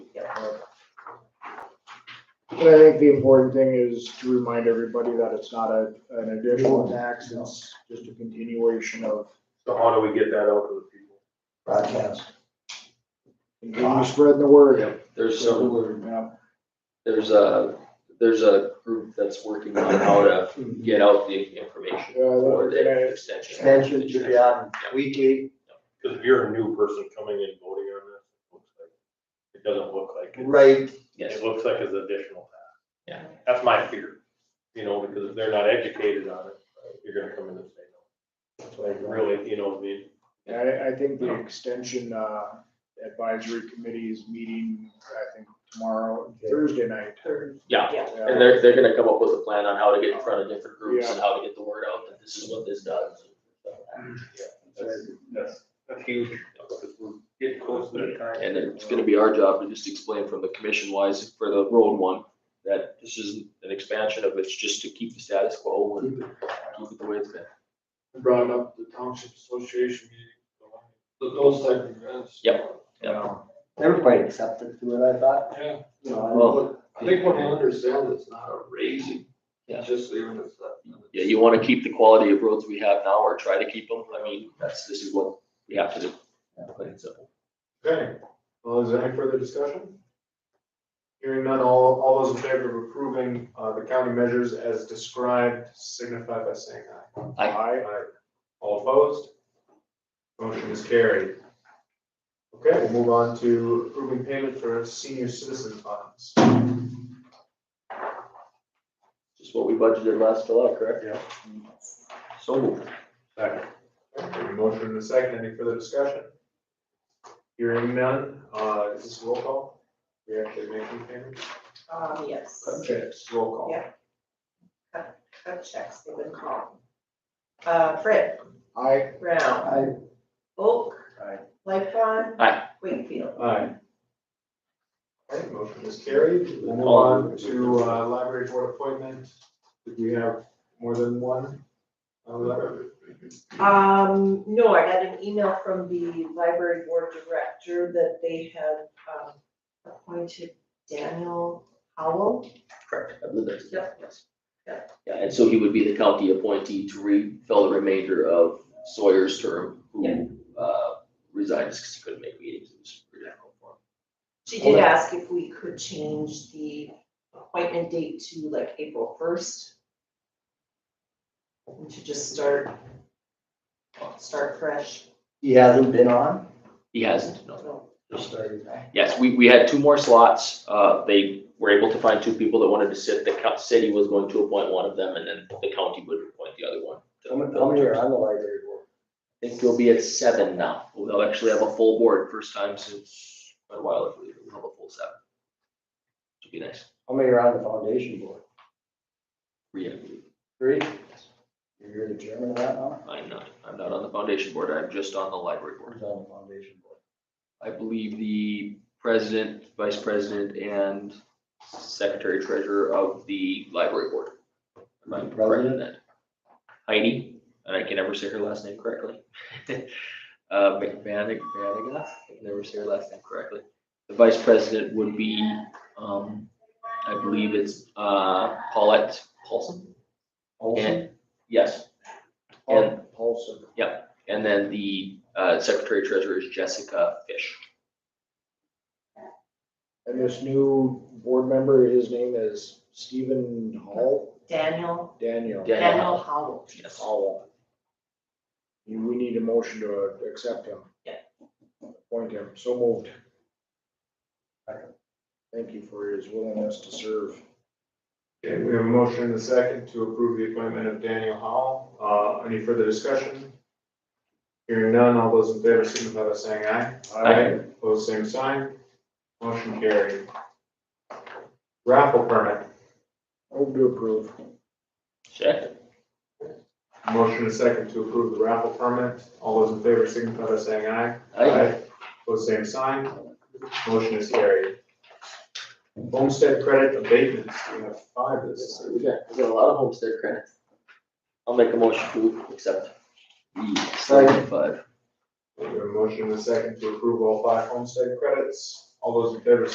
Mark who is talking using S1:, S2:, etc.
S1: And I think the important thing is to remind everybody that it's not a, an additional tax, it's just a continuation of
S2: So how do we get that out to the people?
S3: broadcast.
S1: continue spreading the word.
S4: There's some,
S1: Yeah. uh,
S4: there's a, there's a group that's working on how to get out the information
S1: Yeah, I love
S4: for
S1: that.
S4: the extension.
S3: Extension should be on weekly,
S2: Because if you're a new person coming in voting on this, it looks like, it doesn't look like it.
S3: right,
S4: Yes,
S2: It looks like it's additional tax.
S4: Yeah.
S2: That's my fear, you know, because if they're not educated on it, you're gonna come in and say no. That's why I really, you know, I mean,
S1: Yeah, I, I think the extension, uh, advisory committee is meeting, I think tomorrow, Thursday night.
S4: yeah, and
S1: Yeah.
S4: they're, they're gonna come up with a plan on how to get in front of different groups and how to get the word out that this is what this does.
S2: that's, that's, that's huge. Because we're getting close to that time.
S4: And it's gonna be our job to just explain from the commission wise for the road one, that this isn't an expansion of, it, it's just to keep the status quo and keep it the way it's been.
S5: brought up the township association meeting, the- those type of events.
S4: Yep.
S3: everybody accepted to it, I thought,
S5: Yeah,
S3: you know, I
S4: Well,
S3: don't-
S5: I think when they understand it's not a raising, it's just leaving it that.
S4: Yeah, you wanna keep the quality of roads we have now or try to keep them. I mean, that's, this is what we have to do. Plain and simple.
S5: Okay, well, is there any further discussion? Hearing none, all, all those in favor of approving, uh, the county measures as described signify by saying aye.
S4: Aye.
S5: Aye. All opposed? Motion is carried. Okay, we'll move on to approving payment for senior citizen funds.
S4: Just what we budgeted last July, correct?
S2: Yeah.
S4: So moved.
S2: Second.
S5: Okay, Motion in a second, any further discussion? Hearing none, uh, is this roll call? We actually making payments?
S6: Um, yes,
S5: Cut checks, roll call.
S6: Yeah. cut checks, they've been called. Uh, Fred,
S1: I,
S6: Brown,
S3: I,
S6: Oak.
S5: Aye.
S6: Lightcon.
S4: Aye.
S6: Wakefield.
S5: Aye. Okay, motion is carried, we'll move
S4: All
S5: on to, uh, library board appointment, did we have more than one? Uh, library?
S6: Um, no, I got an email from the library board director that they had, um, appointed Daniel Howell.
S4: Correct. I believe that's-
S6: Yep.
S4: Yeah, and so he would be the county appointee to refill the remainder of Sawyer's term, who uh, resigned because he couldn't make meetings. It was pretty difficult for him.
S6: She did ask if we could change the appointment date to like April first. And to just start, start fresh.
S3: he hasn't been on,
S4: He hasn't, no.
S3: just started back.
S4: Yes, we, we had two more slots. Uh, They were able to find two people that wanted to sit. The co- city was going to appoint one of them, and then the county would appoint the other one.
S3: How many, how many are on the library board?
S4: I think we'll be at seven now. We'll actually have a full board, first time since quite a while, I believe. We'll have a full seven. Should be nice.
S3: How many are on the foundation board?
S4: Yeah.
S3: Three? You're the chairman of that now?
S4: I'm not, I'm not on the foundation board, I'm just on the library board.
S3: Who's on the foundation board?
S4: I believe the president, vice president, and secretary treasurer of the library board. Am I correct in that? Heidi, and I can never say her last name correctly. Uh, McVaniga, Vaniga, I can never say her last name correctly. The vice president would be, um, I believe it's, uh, Paulette Paulson?
S3: Olson?
S4: And, yes,
S1: Paul Paulson.
S4: and then the, uh, secretary treasurer is Jessica Fish.
S1: And this new board member, his name is Stephen Hall,
S6: Daniel,
S1: Daniel.
S4: Dan- Daniel
S6: Daniel Howell.
S4: Yes.
S1: Hall. You- uh, We need a motion to accept him.
S6: Yeah.
S1: Appoint him, so moved. Thank you for his willingness to serve.
S5: Okay, we have a motion in a second to approve the appointment of Daniel Howell, uh, any further discussion? Hearing none, all those in favor signify by saying aye.
S4: Aye.
S5: Pose same sign, motion carried. Raffle permit,
S1: Move to approve.
S4: Check.
S5: motion in a second to approve the raffle permit, all those in favor signify by saying aye. Pose same sign. Motion is carried. Homestead credit abatements, we have five this.
S4: We got, we got a lot of homestead credits. I'll make a motion to accept. the Seventy-five.
S5: We have a motion in a second to approve all five homestead credits. All those in favor